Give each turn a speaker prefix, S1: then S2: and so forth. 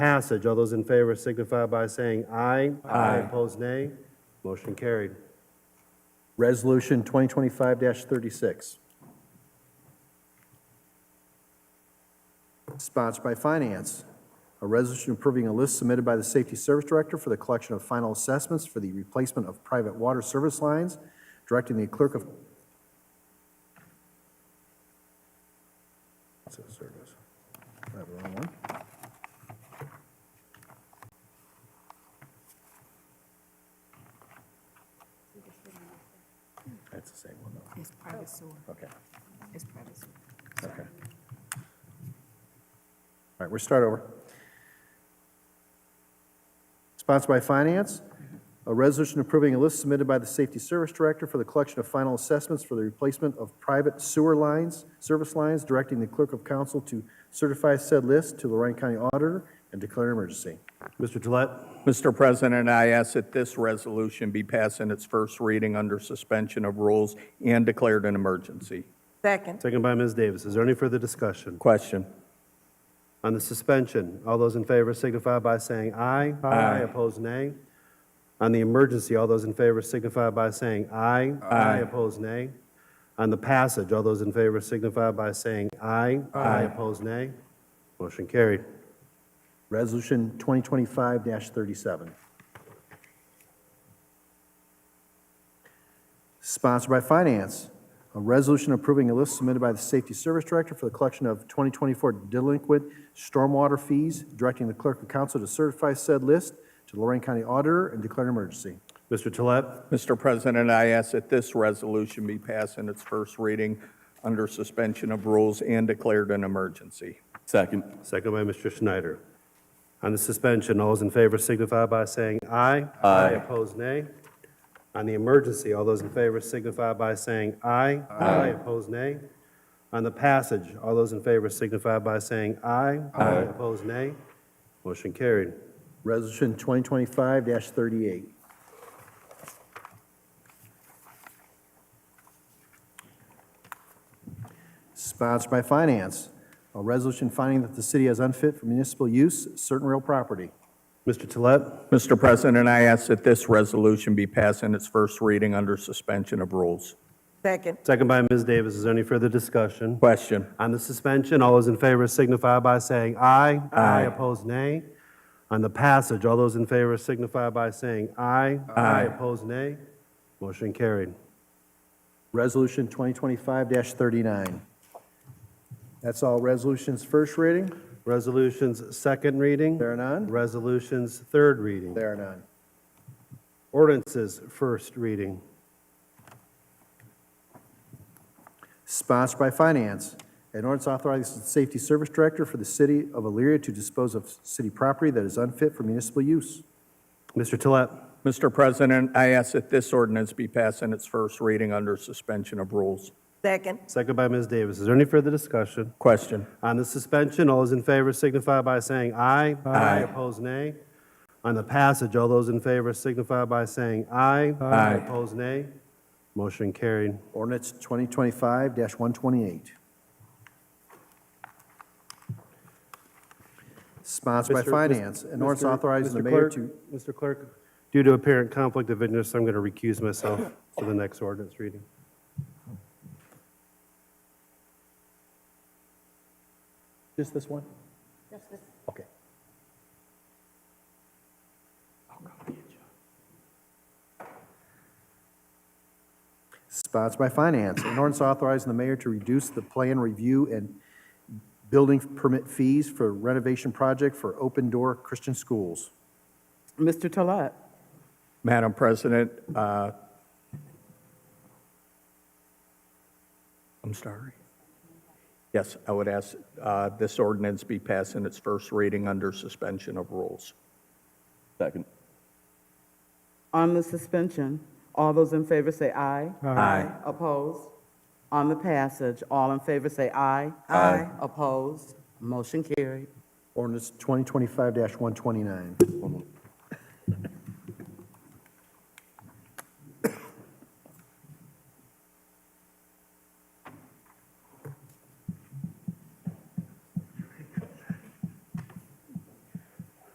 S1: passage. All those in favor signify by saying aye. Aye. Opposed, nay. Motion carried.
S2: Resolution 2025-36. Sponsored by Finance. A resolution approving a list submitted by the Safety Service Director for the collection of final assessments for the replacement of private water service lines, directing the clerk of... Service. I have the wrong one. That's the same one, though.
S3: It's private sewer,
S2: Okay,
S3: it's private sewer.
S2: okay. All right, we'll start over. Sponsored by Finance, a resolution approving a list submitted by the Safety Service Director for the collection of final assessments for the replacement of private sewer lines, service lines, directing the Clerk of Council to certify said list to Lorraine County Auditor and declare an emergency.
S1: Mr. Gillette?
S4: Mr. President, I ask that this resolution be passed in its first reading under suspension of rules and declared an emergency.
S3: Second.
S1: Second by Ms. Davis. Is there any further discussion?
S4: Question.
S1: On the suspension, all those in favor signify by saying aye. Aye. Opposed, nay. On the emergency, all those in favor signify by saying aye. Aye. Opposed, nay. On the passage, all those in favor signify by saying aye. Aye. Opposed, nay. Motion carried.
S2: Resolution 2025-37. Sponsored by Finance. A resolution approving a list submitted by the Safety Service Director for the collection of 2024 delinquent stormwater fees, directing the Clerk of Council to certify said list to Lorraine County Auditor and declare an emergency.
S1: Mr. Gillette?
S4: Mr. President, I ask that this resolution be passed in its first reading under suspension of rules and declared an emergency.
S5: Second.
S1: Second by Mr. Schneider. On the suspension, all those in favor signify by saying aye. Aye. Opposed, nay. On the emergency, all those in favor signify by saying aye. Aye. Opposed, nay. On the passage, all those in favor signify by saying aye. Aye. Opposed, nay. Motion carried.
S2: Resolution 2025-38. Sponsored by Finance. A resolution finding that the city has unfit for municipal use certain real property.
S1: Mr. Tolet,
S4: Mr. President, I ask that this resolution be passed in its first reading under suspension of rules.
S3: Second.
S1: second by Ms. Davis. Is there any further discussion?
S4: Question.
S1: On the suspension, all those in favor signify by saying aye. Aye. Opposed, nay. On the passage, all those in favor signify by saying aye. Aye. Opposed, nay. Motion carried.
S2: Resolution 2025-39. That's all resolutions first reading.
S1: Resolutions, second reading.
S2: There are none.
S1: Resolutions, third reading.
S2: There are none.
S1: Ordinances, first reading.
S2: Sponsored by Finance. An ordinance authorizing the Safety Service Director for the city of Elyria to dispose of city property that is unfit for municipal use.
S1: Mr. Tolet,
S4: Mr. President, I ask that this ordinance be passed in its first reading under suspension of rules.
S3: Second.
S1: second by Ms. Davis. Is there any further discussion?
S4: Question.
S1: On the suspension, all those in favor signify by saying aye. Aye. Opposed, nay. On the passage, all those in favor signify by saying aye.
S4: Aye.
S1: Opposed, nay. Motion carried.
S2: Ordinance 2025-128. Sponsored by
S1: Mr.
S2: Finance.
S1: Mr.
S2: An ordinance
S1: Mr.
S2: authorizing the
S1: Mr.
S2: mayor
S1: Clerk-
S2: to...
S1: Mr. Clerk, due to apparent conflict of interest, I'm going to recuse myself for the next ordinance reading.
S2: Just this one? Okay. Sponsored by Finance. An ordinance authorizing the mayor to reduce the plan review and building permit fees for renovation project for open door Christian schools.
S6: Mr. Tolet.
S4: Madam President, uh, I'm sorry. Yes, I would ask uh, this ordinance be passed in its first reading under suspension of rules.
S5: Second.
S6: On the suspension, all those in favor say aye.
S4: Aye.
S6: Opposed? On the passage, all in favor say aye.
S3: Aye.
S6: Opposed? Motion carried.
S2: Ordinance 2025-129.